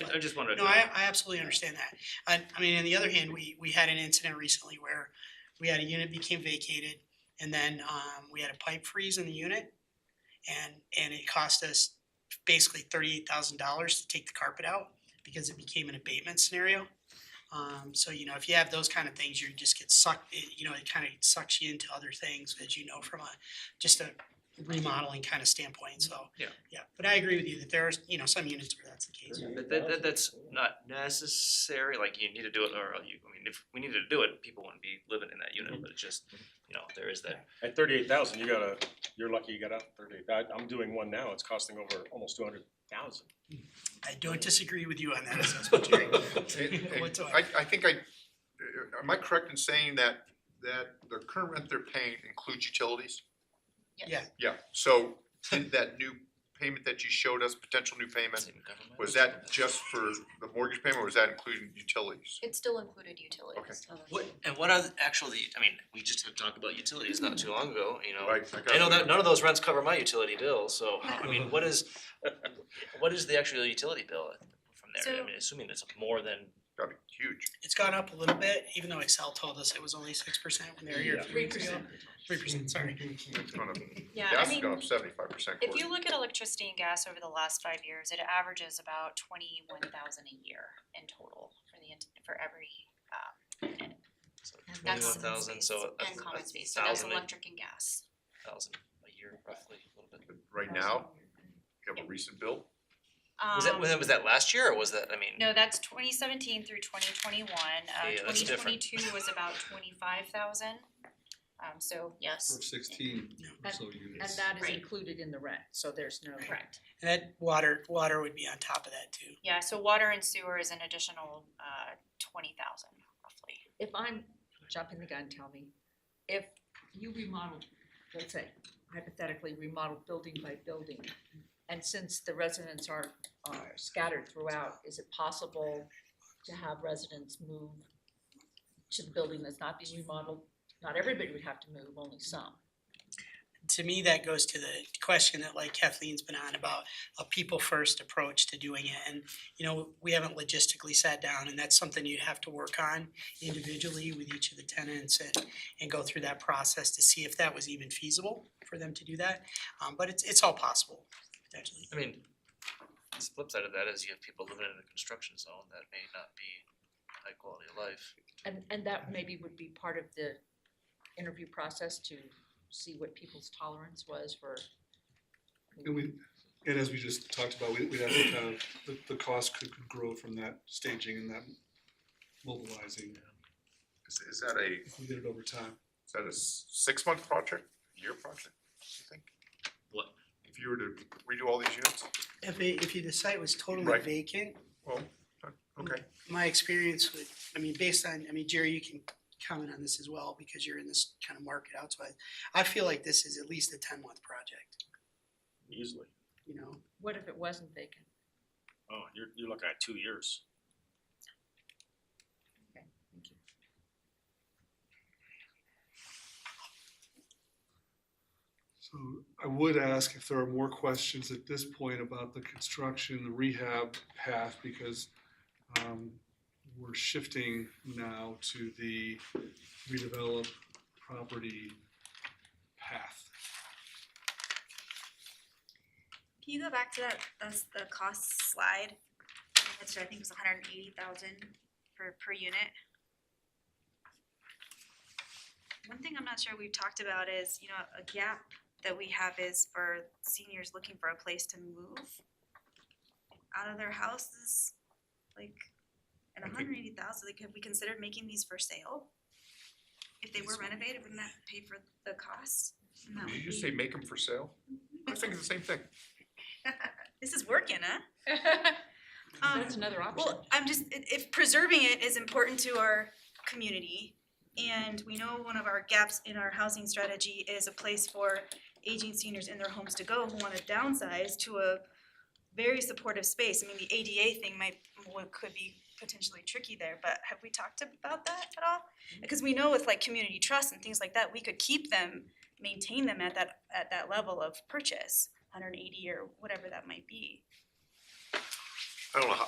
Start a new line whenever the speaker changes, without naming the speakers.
I- I just wanted to.
No, I, I absolutely understand that. I, I mean, on the other hand, we, we had an incident recently where we had a unit became vacated and then, um, we had a pipe freeze in the unit. And, and it cost us basically thirty-eight thousand dollars to take the carpet out because it became an abatement scenario. Um, so, you know, if you have those kind of things, you just get sucked, it- you know, it kind of sucks you into other things, as you know, from a, just a remodeling kind of standpoint, so.
Yeah.
Yeah, but I agree with you that there are, you know, some units where that's the case.
But that, that, that's not necessary, like you need to do it or you, I mean, if we needed to do it, people wouldn't be living in that unit, but it's just, you know, there is that.
At thirty-eight thousand, you gotta, you're lucky you got out thirty-eight. I, I'm doing one now. It's costing over almost two hundred thousand.
I don't disagree with you on that assessment, Jerry.
It- it-
What's up?
I, I think I, uh, am I correct in saying that, that the current rent they're paying includes utilities?
Yes.
Yeah.
Yeah, so in that new payment that you showed us, potential new payment, was that just for the mortgage payment or was that including utilities?
It still included utilities.
What, and what are the- actually, I mean, we just had talked about utilities not too long ago, you know.
Right, got
I know that,
that.
none of those rents cover my utility bill, so, I mean, what is, what is the actual utility bill uh, from there? I
So-
mean, assuming it's more than,
Gotta be huge.
It's gone up a little bit, even though Excel told us it was only six percent when they were here a few weeks ago. Three percent, sorry.
It's gonna-
Yeah, I
Gas has
mean,
gone up seventy-five percent.
if you look at electricity and gas over the last five years, it averages about twenty-one thousand a year in total for the, ent- for every, um,
so
And
twenty-one
that's-
thousand, so a, a
and common space, so that's
thousand a-
electric and gas.
thousand a year roughly, a little bit.
Right now, you have a recent bill,
Was that, was that,
Um,
was that last year or was that, I mean?
No, that's twenty seventeen through twenty twenty-one,
Yeah,
uh,
yeah, that's
twenty
different.
twenty-two was about twenty-five thousand. Um, so, yes,
For sixteen or so
And
units.
that is
Right.
included in the rent, so there's no.
correct.
And that water, water would be on top of that too.
Yeah, so water and sewer is an additional uh twenty thousand roughly.
If I'm jumping the gun, tell me, if you remodeled, let's say hypothetically remodeled building by building, and since the residents are are scattered throughout, is it possible to have residents move to the building that's not being remodeled? Not everybody would have to move, only some.
To me, that goes to the question that like Kathleen's been on about a people first approach to doing it. And, you know, we haven't logistically sat down and that's something you'd have to work on individually with each of the tenants and, and go through that process to see if that was even feasible for them to do that. Um, but it's, it's all possible, potentially.
I mean, the flip side of that is you have people living in a construction zone that may not be high quality of life.
And, and that maybe would be part of the interview process to see what people's tolerance was for.
And we, and as we just talked about, we, we have to have, the, the cost could, could grow from that staging and that mobilizing,
is, is that a,
if we did it over time.
is that a s- six-month project, year project, you think?
What?
If you were to redo all these units?
If it, if you decide it was totally
Right.
vacant,
Well, uh, okay,
my experience with, I mean, based on, I mean, Jerry, you can comment on this as well, because you're in this kind of market outside. I feel like this is at least a ten month project,
Easily.
you know,
What if it wasn't vacant?
Oh, you're, you're looking at two years.
Thank you.
So I would ask if there are more questions at this point about the construction, the rehab path, because um, we're shifting now to the redevelop property path.
Can you go back to that, that's the cost slide, which I think was hundred and eighty thousand for per unit? One thing I'm not sure we've talked about is, you know, a gap that we have is for seniors looking for a place to move out of their houses, like, at
I think-
hundred and eighty thousand, like, have we considered making these for sale? If they were renovated, wouldn't that pay for the cost? And that
did
would
you say
be-
make them for sale? I think it's the same thing.
This is working, huh? Um,
That's another option.
Well, I'm just, i- if preserving it is important to our community, and we know one of our gaps in our housing strategy is a place for aging seniors in their homes to go who wanna downsize to a very supportive space. I mean, the ADA thing might, what could be potentially tricky there, but have we talked about that at all? Because we know with like community trust and things like that, we could keep them, maintain them at that, at that level of purchase, hundred and eighty or whatever that might be.
I don't know how,